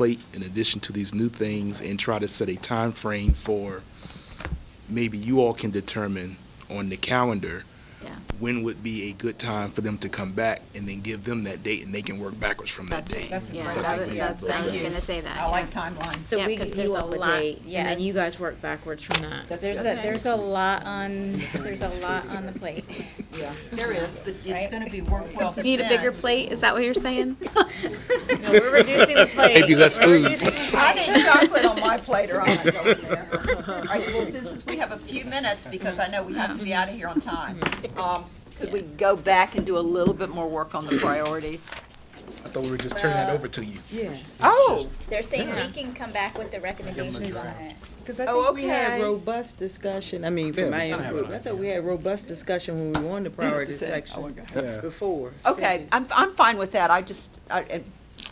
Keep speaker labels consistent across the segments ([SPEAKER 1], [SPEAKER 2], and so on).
[SPEAKER 1] plate in addition to these new things and try to set a time frame for, maybe you all can determine on the calendar,
[SPEAKER 2] Yeah.
[SPEAKER 1] when would be a good time for them to come back and then give them that date and they can work backwards from that
[SPEAKER 3] That's-
[SPEAKER 1] date.
[SPEAKER 3] that's a
[SPEAKER 2] Yeah,
[SPEAKER 3] great
[SPEAKER 1] So I
[SPEAKER 2] that
[SPEAKER 1] think
[SPEAKER 2] was,
[SPEAKER 1] we
[SPEAKER 2] that's,
[SPEAKER 1] have
[SPEAKER 2] I was
[SPEAKER 1] both.
[SPEAKER 2] gonna say that.
[SPEAKER 3] I like timelines.
[SPEAKER 2] Yeah,
[SPEAKER 4] So we
[SPEAKER 2] 'cause
[SPEAKER 4] give
[SPEAKER 2] there's
[SPEAKER 4] you
[SPEAKER 2] a
[SPEAKER 4] all the
[SPEAKER 2] lot-
[SPEAKER 4] date,
[SPEAKER 2] yeah.
[SPEAKER 4] and then you guys work backwards from that.
[SPEAKER 3] That's
[SPEAKER 5] There's a,
[SPEAKER 3] good.
[SPEAKER 5] there's a lot on, there's a lot on the plate.
[SPEAKER 3] Yeah, there is, but it's
[SPEAKER 5] Right.
[SPEAKER 3] gonna be work well spent.
[SPEAKER 2] Need a bigger plate, is that what you're saying?
[SPEAKER 5] No, we're reducing the plate.
[SPEAKER 1] Maybe less food.
[SPEAKER 3] I need chocolate on my plate or I'm not going there. All right, well, this is, we have a few minutes because I know we have to be out of here on time. Um, Could we go back and do a little bit more work on the priorities?
[SPEAKER 1] I thought we were just turning that over to you.
[SPEAKER 3] Oh,
[SPEAKER 5] They're saying we can come back with the recommendations on it.
[SPEAKER 6] Because I
[SPEAKER 3] Oh,
[SPEAKER 6] think we had
[SPEAKER 3] okay.
[SPEAKER 6] robust discussion, I mean,
[SPEAKER 1] Yeah,
[SPEAKER 6] from
[SPEAKER 1] we
[SPEAKER 6] my
[SPEAKER 1] kinda had
[SPEAKER 6] group, I thought we had robust discussion when we were on the priority section before.
[SPEAKER 3] okay, I'm, I'm fine with that, I just, I, and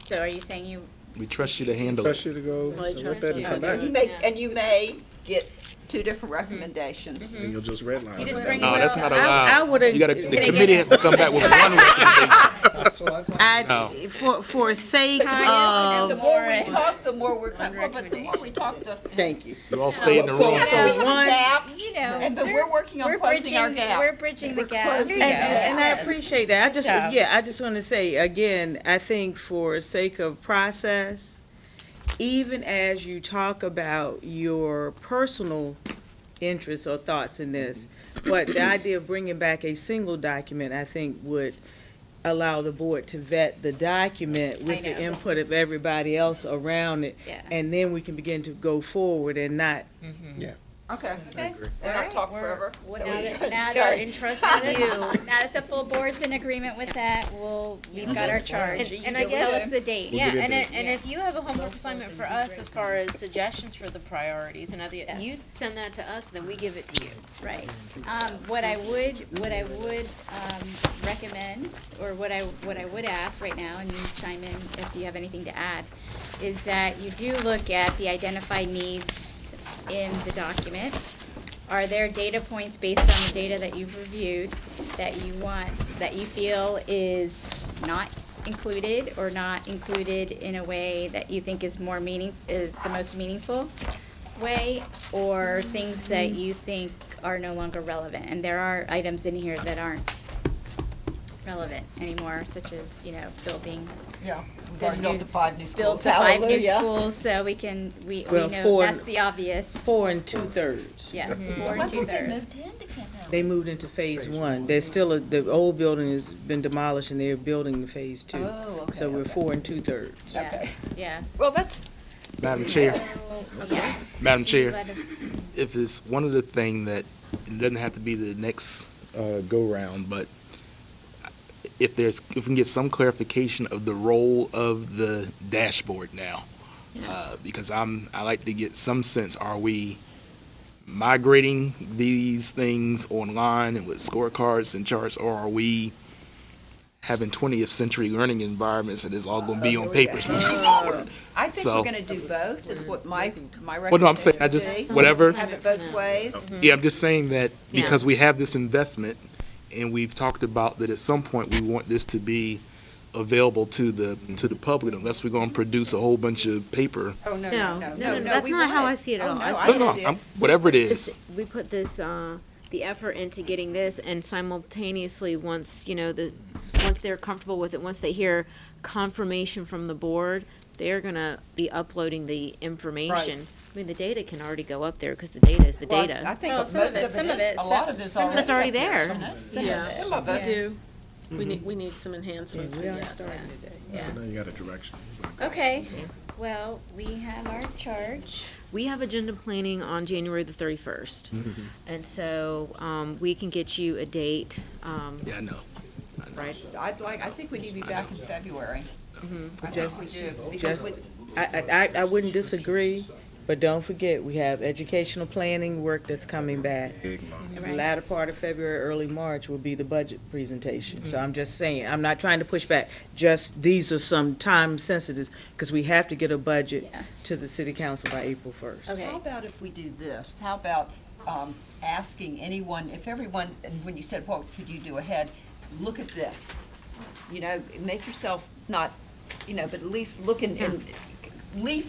[SPEAKER 5] So are you saying you?
[SPEAKER 1] We trust you to handle it.
[SPEAKER 7] you to go look at it and come back,
[SPEAKER 3] you may, and you may get two different recommendations.
[SPEAKER 7] and you'll just redline. it.
[SPEAKER 5] bring
[SPEAKER 1] No, that's not
[SPEAKER 6] I
[SPEAKER 1] allowed. uh, You gotta,
[SPEAKER 6] would've,
[SPEAKER 1] the committee has to come back with one recommendation. Oh.
[SPEAKER 6] I, for, for sake
[SPEAKER 3] And the
[SPEAKER 6] of,
[SPEAKER 3] more we talk, the more we're, talking. well, but the more we talk, the.
[SPEAKER 6] thank you.
[SPEAKER 1] You all stay in the room.
[SPEAKER 6] So one,
[SPEAKER 5] You know.
[SPEAKER 3] And, but we're working on
[SPEAKER 5] we're
[SPEAKER 3] closing our
[SPEAKER 5] bridging-
[SPEAKER 3] gap.
[SPEAKER 5] We're bridging the
[SPEAKER 3] We're
[SPEAKER 5] gap. uh,
[SPEAKER 3] closing
[SPEAKER 6] And,
[SPEAKER 3] Yeah.
[SPEAKER 6] and I appreciate that. I just,
[SPEAKER 5] Yeah.
[SPEAKER 6] yeah, I just want to say, again, I think for sake of process, even as you talk about your personal interests or thoughts in this, but the idea of bringing back a single document, I think, would allow the board to vet the document with the
[SPEAKER 5] know.
[SPEAKER 6] input of everybody else around it.
[SPEAKER 5] Yeah.
[SPEAKER 6] And then we can begin to go forward and not
[SPEAKER 3] Okay. Okay. And I'll talk forever. Is that what
[SPEAKER 5] Now
[SPEAKER 3] you're
[SPEAKER 5] that-
[SPEAKER 3] gonna
[SPEAKER 5] now
[SPEAKER 3] say?
[SPEAKER 5] that- Now that the full board's in agreement with that, we'll, we've got our charge.
[SPEAKER 8] And I
[SPEAKER 5] Tell
[SPEAKER 8] guess,
[SPEAKER 5] us the date.
[SPEAKER 8] yeah, and, it- and if you have a homework assignment for us as far as suggestions for the priorities and other, you send that to us, then we give it to you.
[SPEAKER 5] Right. Um, what I would, what I would, um, recommend, or what I, what I would ask right now, and you chime in if you have anything to add, is that you do look at the identified needs in the document. Are there data points based on the data that you've reviewed that you want, that you feel is not included or not included in a way that you think is more meaning, is the most meaningful? way or things that you think are no longer relevant. And there are items in here that aren't relevant anymore, such as, you know, building,
[SPEAKER 3] Yeah, we've
[SPEAKER 5] the
[SPEAKER 3] already built
[SPEAKER 5] new-
[SPEAKER 3] the five new
[SPEAKER 5] build
[SPEAKER 3] schools,
[SPEAKER 5] to five new
[SPEAKER 3] hallelujah.
[SPEAKER 5] schools, so we can, we, we
[SPEAKER 6] Well,
[SPEAKER 5] know,
[SPEAKER 6] four-
[SPEAKER 5] that's the obvious.
[SPEAKER 6] four Mm-hmm. and two-thirds.
[SPEAKER 5] Yes, four and two-thirds.
[SPEAKER 6] They moved into phase one. There's still, a the old building has been demolished and they're building the phase two.
[SPEAKER 3] Oh, okay,
[SPEAKER 6] So we're
[SPEAKER 3] okay.
[SPEAKER 6] four and two-thirds.
[SPEAKER 5] Yeah,
[SPEAKER 3] Okay.
[SPEAKER 5] yeah.
[SPEAKER 3] Well, that's,
[SPEAKER 1] Madam Chair,
[SPEAKER 5] Yeah.
[SPEAKER 1] Madam Chair.
[SPEAKER 5] Let us-
[SPEAKER 1] if it's one of the thing that, it doesn't have to be the next uh, go-round, but if there's, if we can get some clarification of the role of the dashboard now. Uh, Because I'm, I like to get some sense, are we migrating these things online and with scorecards and charts? Or are we having twentieth century learning environments and it's all gonna be
[SPEAKER 3] Uh,
[SPEAKER 1] on papers moving forward?
[SPEAKER 3] I think
[SPEAKER 1] So-
[SPEAKER 3] we're gonna do both, is what my, my recommendation would be.
[SPEAKER 1] Well, no, I'm saying, I just, whatever.
[SPEAKER 3] Have it both ways.
[SPEAKER 1] Yeah, I'm just saying that because we have this investment and we've talked about that at some point we want this to be available to the, to the public unless we're gonna produce a whole bunch of paper.
[SPEAKER 3] Oh, no,
[SPEAKER 4] No,
[SPEAKER 3] no,
[SPEAKER 4] no, no,
[SPEAKER 3] no, no.
[SPEAKER 4] that's
[SPEAKER 3] we
[SPEAKER 4] not how
[SPEAKER 3] want
[SPEAKER 4] I
[SPEAKER 3] it.
[SPEAKER 4] see it at
[SPEAKER 3] Oh,
[SPEAKER 4] all.
[SPEAKER 3] no,
[SPEAKER 4] I
[SPEAKER 3] I
[SPEAKER 4] see
[SPEAKER 1] No, no,
[SPEAKER 3] see
[SPEAKER 1] I'm- whatever it
[SPEAKER 4] It's-
[SPEAKER 1] is,
[SPEAKER 4] We put this, uh, the effort into getting this and simultaneously, once, you know, the, once they're comfortable with it, once they hear confirmation from the board, they're gonna be uploading the information. I mean, the data can already go up there, cause the data is the
[SPEAKER 3] Well,
[SPEAKER 4] data.
[SPEAKER 3] I think
[SPEAKER 5] Well,
[SPEAKER 3] most
[SPEAKER 5] some of
[SPEAKER 3] of
[SPEAKER 5] it-
[SPEAKER 3] it
[SPEAKER 5] some of
[SPEAKER 3] is,
[SPEAKER 5] it-
[SPEAKER 3] a lot of it's already.
[SPEAKER 4] It's already there.
[SPEAKER 3] isn't it? Some of
[SPEAKER 5] Yeah.
[SPEAKER 3] it.
[SPEAKER 9] do, we need, we need some enhancements.
[SPEAKER 6] We are starting today.
[SPEAKER 5] Yeah.
[SPEAKER 7] Now you got a direction.
[SPEAKER 5] Okay, well, we have our charge.
[SPEAKER 4] we have agenda planning on January the thirty-first.
[SPEAKER 1] Mm-hmm.
[SPEAKER 4] And so, um, we can get you a date, um,
[SPEAKER 1] yeah, I know.
[SPEAKER 4] right?
[SPEAKER 3] I'd like, I think we need to be back in February. I think
[SPEAKER 6] Just-
[SPEAKER 3] we do, because
[SPEAKER 6] just-
[SPEAKER 3] we,
[SPEAKER 6] I, I- I, I wouldn't disagree, but don't forget, we have educational planning work that's coming back. And the latter part of February, early March will be the budget presentation. So I'm just saying, I'm not trying to push back, just, these are some time sensitive, because we have to get a budget
[SPEAKER 5] Yeah.
[SPEAKER 6] to the city council by April first.
[SPEAKER 5] Okay.
[SPEAKER 3] How about if we do this? How about um, asking anyone, if everyone, and when you said, what could you do ahead, look at this. You know, make yourself not, you know, but at least look and, and leaf